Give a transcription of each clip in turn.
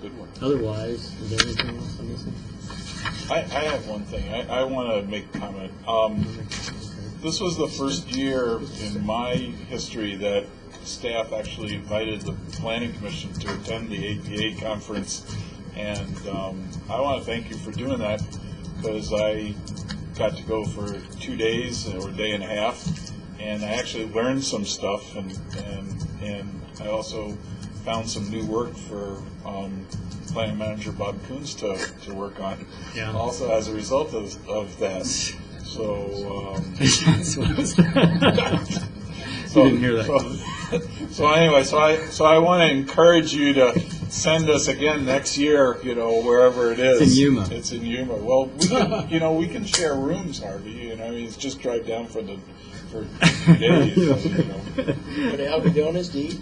good one. Otherwise, is there anything else I'm missing? I, I have one thing. I, I want to make a comment. Um, this was the first year in my history that staff actually invited the planning commission to attend the APA conference. And um, I want to thank you for doing that because I got to go for two days or a day and a half. And I actually learned some stuff and, and, and I also found some new work for um, planning manager Bob Coons to, to work on. Yeah. Also as a result of, of that. So, um, That's what I was- so, didn't hear that. So, so anyway, so I so I want to encourage you to send us again next year. You know, wherever it is. It's in Yuma. It's in Yuma. Well, we can, you know we can share rooms, Harvey. You know, I mean, it's just drive down for the for two days. you know. Go to Algodonas to eat.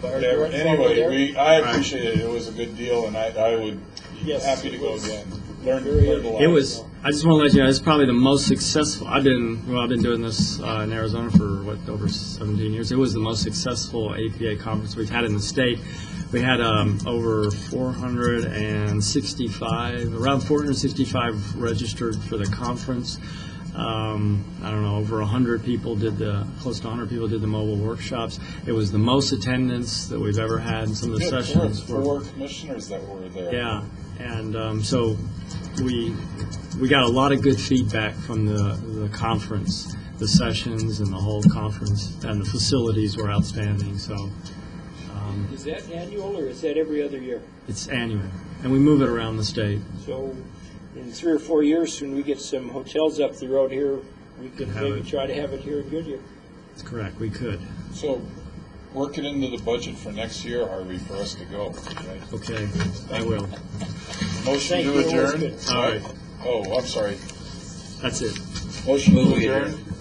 Whatever. Anyway, we I appreciate it. It was a good deal, and I I would be Yes, happy to it go was. again. Learn, Very- learn a lot. It was, I just want to let you know, it's probably the most successful, I've been, well, I've been doing this uh, in Arizona for, what, over 17 years. It was the most successful APA conference we've had in the state. We had um, over 465, around 465 registered for the conference. Um, I don't know, over 100 people did the, close to 100 people did the mobile workshops. It was the most attendance that we've ever had in some of the Yeah, there were sessions. were- four commissioners that were there. yeah, and um, so we we got a lot of good feedback from the the conference, the sessions, and the whole conference, and the facilities were outstanding. So um, Is that annual or is that every other year? it's annual, and we move it around the state. So in three or four years, when we get some hotels up the road here, we could Have maybe it. try to have it here in Goodyear. That's correct. We could. So, work it into the budget for next year, Harvey, for us to go. Right? Okay, I will. Motion Thank to you. adjourn? All right. Oh, I'm sorry. That's it. Motion to adjourn?